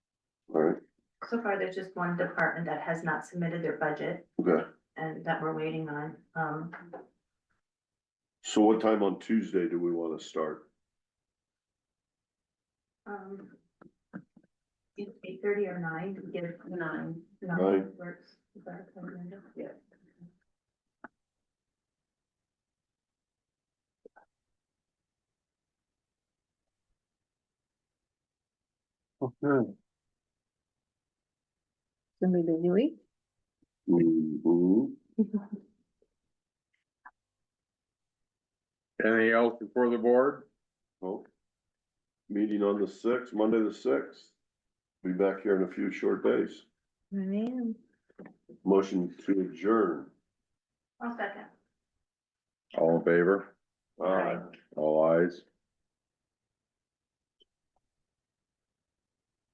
So far, there's just one department that has not submitted their budget Okay, and that we're waiting on. Um, so what time on Tuesday do we wanna start? um. Eight thirty or nine, we get it. nine. Nine. Works. Is that okay, Linda? Okay. It's gonna be a busy week. Mhm. Anything else before the board? Well, Meeting on the sixth, Monday the sixth. Be back here in a few short days. Man, Motion to adjourn. I'll second. All in favor? Aye. All eyes.